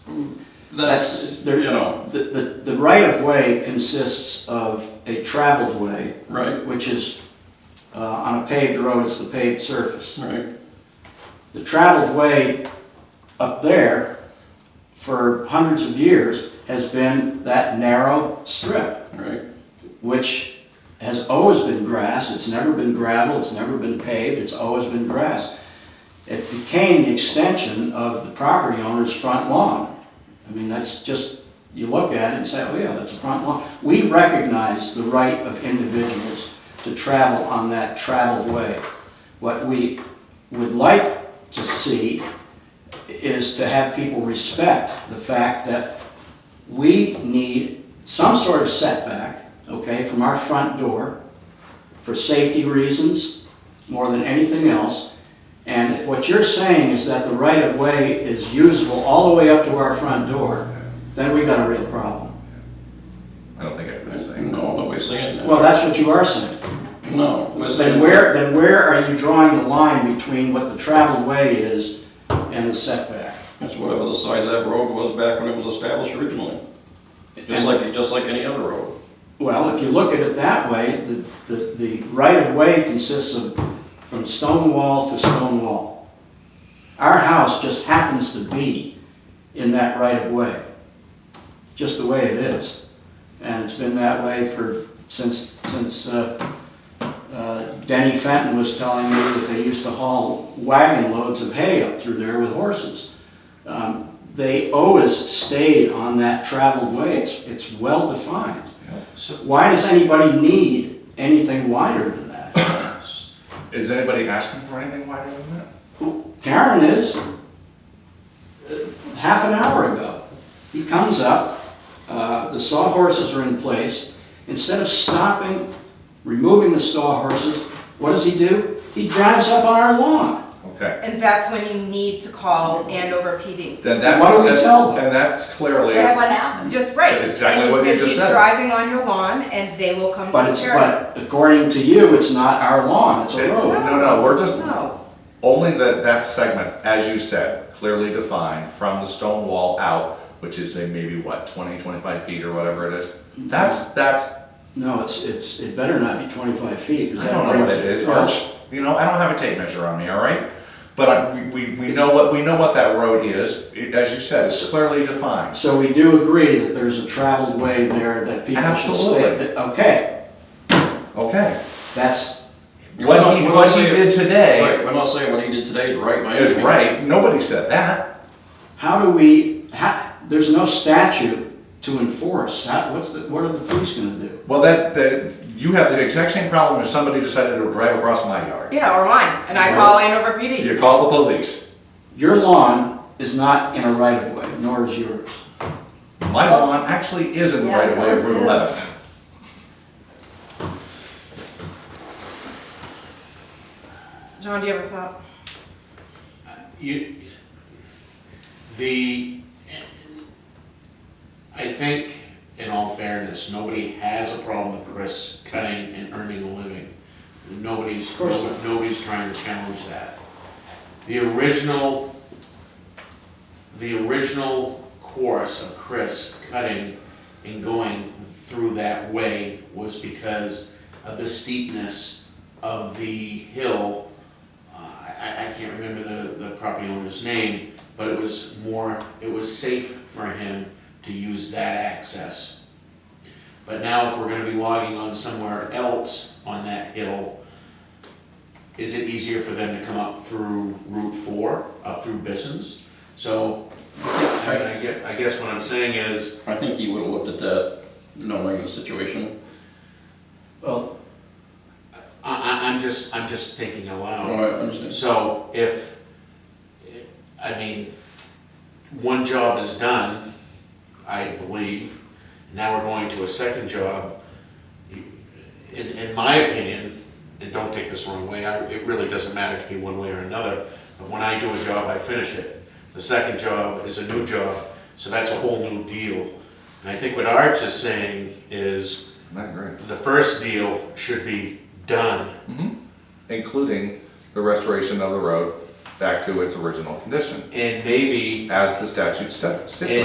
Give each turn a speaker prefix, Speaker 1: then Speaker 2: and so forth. Speaker 1: That's,
Speaker 2: That's,
Speaker 1: there-
Speaker 2: you know,
Speaker 1: The, the, the right of way consists of a traveled way,
Speaker 2: right,
Speaker 1: which is, uh, on a paved road, it's the paved surface.
Speaker 2: right,
Speaker 1: The traveled way up there for hundreds of years has been that narrow strip,
Speaker 2: right,
Speaker 1: which has always been grass. It's never been gravel, it's never been paved, it's always been grass. It became the extension of the property owner's front lawn. I mean, that's just, you look at it and say, oh yeah, that's a front lawn. We recognize the right of individuals to travel on that traveled way. What we would like to see is to have people respect the fact that we need some sort of setback, okay, from our front door for safety reasons more than anything else. And if what you're saying is that the right of way is usable all the way up to our front door, then we've got a real problem.
Speaker 3: I don't think I
Speaker 2: I
Speaker 3: was
Speaker 2: say,
Speaker 3: saying.
Speaker 2: no, nobody's saying that,
Speaker 1: Well, that's what you are saying.
Speaker 2: no. we're
Speaker 1: Then
Speaker 2: saying-
Speaker 1: where, then where are you drawing the line between what the traveled way is and the setback?
Speaker 2: It's whatever the size of that road was back when it was established originally, just like, just like any other road.
Speaker 1: Well, if you look at it that way, the, the, the right of way consists of from stone wall to stone wall. Our house just happens to be in that right of way, just the way it is. And it's been that way for, since, since, uh, uh, Danny Fenton was telling me that they used to haul wagon loads of hay up through there with horses. Um, They always stayed on that traveled way, it's, it's well defined. Why does anybody need anything wider than that?
Speaker 3: Is anybody asking for anything wider than that?
Speaker 1: Karen is, uh, half an hour ago, he comes up, uh, the sawhorses are in place. Instead of stopping, removing the sawhorses, what does he do? He drives up on our lawn.
Speaker 3: Okay.
Speaker 4: And that's when you need to call Andover PD.
Speaker 3: Then that's.
Speaker 1: Why don't we
Speaker 3: that's-
Speaker 1: tell them?
Speaker 3: And that's clearly,
Speaker 4: That's
Speaker 3: I
Speaker 4: what happens. Just right.
Speaker 3: That's exactly what you
Speaker 4: And
Speaker 3: just
Speaker 4: he's
Speaker 3: said.
Speaker 4: driving on your lawn and they will come
Speaker 1: But
Speaker 4: take
Speaker 1: it's,
Speaker 4: care of it.
Speaker 1: but according to you, it's not our lawn, it's a
Speaker 3: It-
Speaker 1: road.
Speaker 3: No, no, we're just-
Speaker 4: No.
Speaker 3: only that, that segment, as you said, clearly defined from the stone wall out, which is a maybe what, 20, 25 feet or whatever it is. That's, that's,
Speaker 1: No, it's, it's, it better not be twenty-five feet. 'cause
Speaker 3: I
Speaker 1: that
Speaker 3: don't know what it
Speaker 1: brings-
Speaker 3: is, Arch. You know, I don't have a tape measure on me, all right? But I, we, we, we know what, we know what that road is. It- As you said, it's clearly defined.
Speaker 1: So we do agree that there's a traveled way there that people should stay.
Speaker 3: Absolutely.
Speaker 1: Okay,
Speaker 3: Okay.
Speaker 1: that's,
Speaker 3: What he, what he did
Speaker 2: Right,
Speaker 3: today
Speaker 2: we're not saying what he did today is right, my.
Speaker 3: is right. Nobody said that.
Speaker 1: how do we, how, there's no statute to enforce. How, what's the, what are the police gonna do?
Speaker 3: Well, that, that, you have the exact same problem if somebody decided to drive across my yard.
Speaker 4: Yeah, or mine. And I call Andover PD.
Speaker 3: You call the police.
Speaker 1: Your lawn is not in a right of way, nor is yours.
Speaker 3: My lawn actually is in the
Speaker 5: Yeah,
Speaker 3: right of way of
Speaker 5: yours
Speaker 3: Route
Speaker 5: is.
Speaker 3: 11.
Speaker 4: John, do you ever thought?
Speaker 6: You, the, I think, in all fairness, nobody has a problem with Chris cutting and earning a living. Nobody's,
Speaker 1: Of course not.
Speaker 6: nobody's trying to challenge that. The original, the original course of Chris cutting and going through that way was because of the steepness of the hill uh, I, I can't remember the, the property owner's name, but it was more, it was safe for him to use that access. But now if we're gonna be logging on somewhere else on that hill, is it easier for them to come up through Route Four, up through Bisson's? So, I mean, I guess, I guess what I'm saying is,
Speaker 2: I think he would have looked at that, knowing the situation.
Speaker 1: Well,
Speaker 6: I, I, I'm just, I'm just thinking aloud.
Speaker 2: Oh, I understand.
Speaker 6: So if, I mean, one job is done, I believe, now we're going to a second job. In, in my opinion, and don't take this the wrong way, I, it really doesn't matter to me one way or another, but when I do a job, I finish it. The second job is a new job, so that's a whole new deal. And I think what Arch is saying is,
Speaker 3: I agree.
Speaker 6: the first deal should be done.
Speaker 3: Including the restoration of the road back to its original condition,
Speaker 6: And maybe
Speaker 3: as the statute sta- stipulates.